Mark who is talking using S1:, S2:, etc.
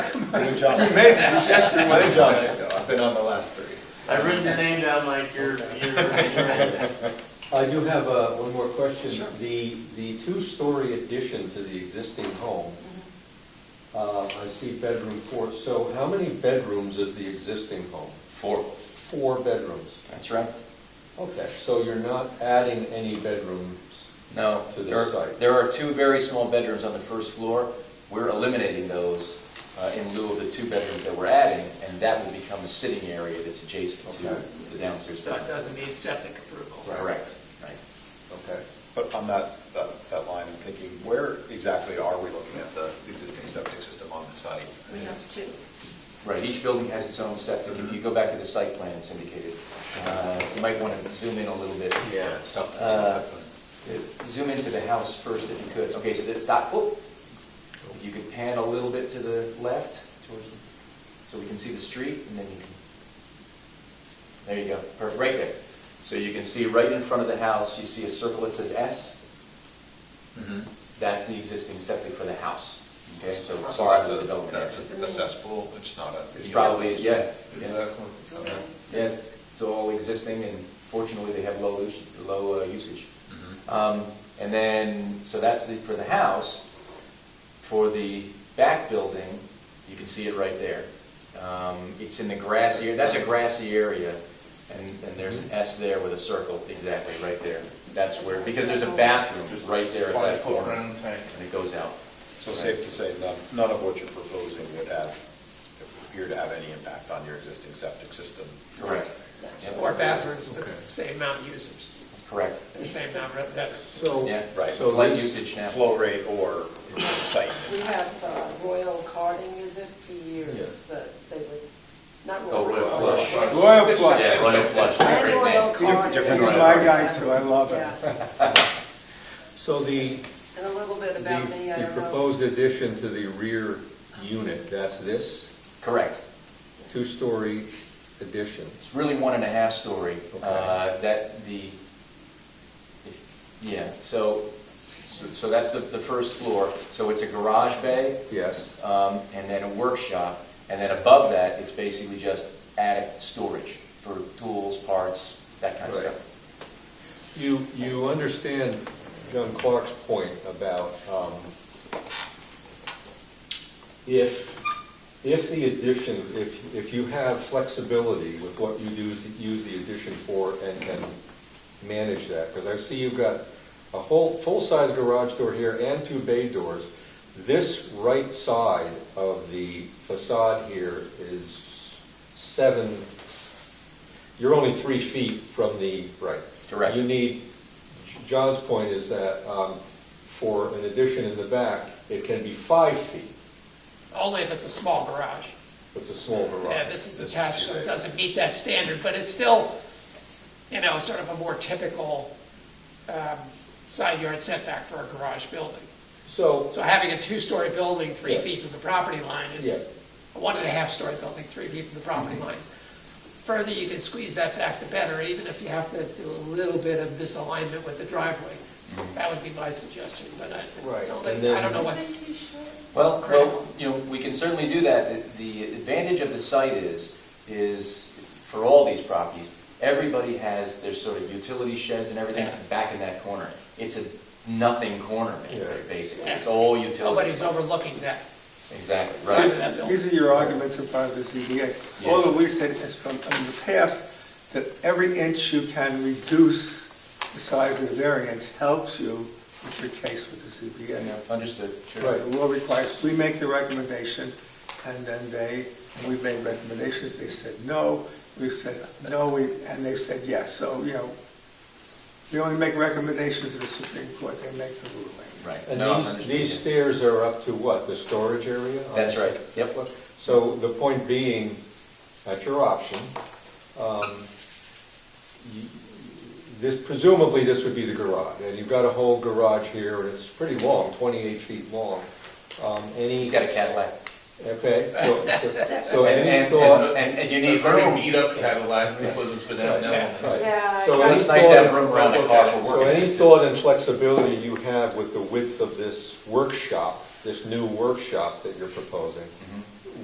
S1: Good job.
S2: You made that gesture with
S1: Good job, Chico. I've been on the last three.
S3: I've written your name down like you're, you're, you're.
S4: I do have uh, one more question. The, the two-story addition to the existing home, uh, I see bedroom four, so how many bedrooms is the existing home?
S2: Four.
S4: Four bedrooms.
S2: That's right.
S4: Okay, so you're not adding any bedrooms?
S2: No,
S4: To the
S2: there are,
S4: site.
S2: there are two very small bedrooms on the first floor. We're eliminating those uh, in lieu of the two bedrooms that we're adding, and that will become a sitting area that's adjacent to
S4: Okay.
S2: the downstairs
S3: So it
S2: side.
S3: doesn't need septic approval.
S2: Correct, right.
S4: Okay.
S1: But on that, that, that line, I'm thinking, where exactly are we looking at the existing septic system on the site?
S5: We have two.
S2: Right, each building has its own septic. If you go back to the site plan, it's indicated. Uh, You might want to zoom in a little bit.
S1: Yeah, it's tough to see.
S2: Uh,
S1: what's happening.
S2: Zoom into the house first if you could. Okay, so that's that, oh, If you could pan a little bit to the left towards, the- so we can see the street and then you can, there you go, perfect, right there. So you can see right in front of the house, you see a circle that says S. mm-hmm. That's the existing septic for the house. Okay, so
S1: So
S2: far as
S1: that's
S2: the
S1: a,
S2: development
S1: that's
S2: area.
S1: a- a cesspool, it's not a.
S2: It's probably, yeah, yeah.
S1: Exactly.
S5: It's
S1: Okay.
S5: okay.
S2: Yeah, it's all existing, and fortunately, they have low, us- low uh, usage.
S1: Mhm.
S2: Um, And then, so that's the, for the house. For the back building, you can see it right there. Um, It's in the grassy, area. that's a grassy area, and, and there's an S there with a circle, exactly, right there. That's where, because there's a bathroom right there at that corner, and it goes out.
S1: So safe to say, none, none of what you're proposing would have, appear to have any impact on your existing septic system.
S2: Correct. Yep.
S3: Or bathrooms, the same amount of users,
S2: Correct,
S3: the same amount of bedrooms.
S4: So.
S2: yeah,
S1: Right.
S2: so light usage now.
S1: Flow rate or site.
S5: We have uh, Royal Carding, is it, for years, that they would, not
S2: Oh,
S5: Royal.
S2: royal
S5: Carding.
S2: flush.
S6: Royal flush.
S2: Yeah, royal flush,
S5: And
S2: great
S5: Royal
S2: name.
S5: Carding.
S1: Different
S6: That's my guy too, I love it.
S5: Yeah,
S4: So the,
S5: and a little bit
S4: the
S5: about me, I
S4: the uh,
S5: don't know.
S4: proposed addition to the rear unit, that's this,
S2: Correct.
S4: two-story addition?
S2: It's really one and a half story.
S4: Okay.
S2: Uh, That, the, if- yeah, so, so so that's the, the first floor. So it's a garage bay,
S4: Yes,
S2: um, and then a workshop, and then above that, it's basically just attic storage for tools, parts, that kind of
S4: Right.
S2: stuff.
S4: You, you understand John Clark's point about um, if, if the addition, if, if you have flexibility with what you use, use the addition for and can manage that, because I see you've got a whole, full-size garage door here and two bay doors. This right side of the facade here is seven, you're only three feet from the, right.
S2: Correct.
S4: You need, John's point is that um, for an addition in the back, it can be five feet.
S3: Only if it's a small garage.
S4: It's a small garage.
S3: Yeah, this is attached, so it doesn't meet that standard, but it's still, you know, sort of a more typical um, side yard setback for a garage building.
S4: So,
S3: So having a two-story building three
S4: Yeah.
S3: feet from the property line
S4: Yeah. Mm-hmm.
S3: is, a one and a half-story building, three feet from the property line. Further you can squeeze that back, the better, even if you have to do a little bit of misalignment with the driveway. That would be my suggestion, but I,
S4: Mm-hmm. Right,
S3: it's only-
S4: and then-
S3: I don't know
S5: Wouldn't
S3: what's.
S5: it be short?
S2: Well,
S3: Critical.
S2: well, you know, we can certainly do that. The the advantage of the site is, is for all these properties, everybody has their sort of utility sheds and everything
S3: Yeah.
S2: back in that corner. It's a nothing corner,
S4: Yeah.
S2: basically. It's all utilities.
S3: Nobody's overlooking that
S2: Exactly,
S3: side
S2: right.
S3: of that building.
S6: These are your arguments in front of the ZBA. All that we said is from, in the past, that every inch you can reduce the size of the variance helps you with your case with the
S2: Yeah,
S6: ZBA.
S2: Understood,
S6: Right,
S2: sure.
S6: the law requires, we make the recommendation, and then they, and we've made recommendations, they said no, we've said no, we, and they said yes, so, you know, we only make recommendations to the Supreme Court, they make the ruling.
S2: Right.
S4: and
S2: No,
S4: these,
S2: understood,
S4: these
S2: yeah.
S4: stairs are up to what, the storage area?
S2: That's right, yep.
S4: So the point being, at your option, um, you- this, presumably this would be the garage. And you've got a whole garage here, and it's pretty long, 28 feet long. Um, Any...
S2: He's got a Cadillac.
S4: Okay, so- so, so
S2: And-
S4: any
S2: and-
S4: thought,
S2: And, and you
S7: A
S2: need
S7: very
S2: room.
S7: beat up Cadillac, it wasn't for that, no.
S4: right.
S5: Yeah.
S4: So
S5: I-
S2: But
S4: any
S2: It's nice to have
S4: thought,
S2: room around the car for
S4: so any
S2: working.
S4: thought and flexibility you have with the width of this workshop, this new workshop that you're proposing,
S2: Mhm.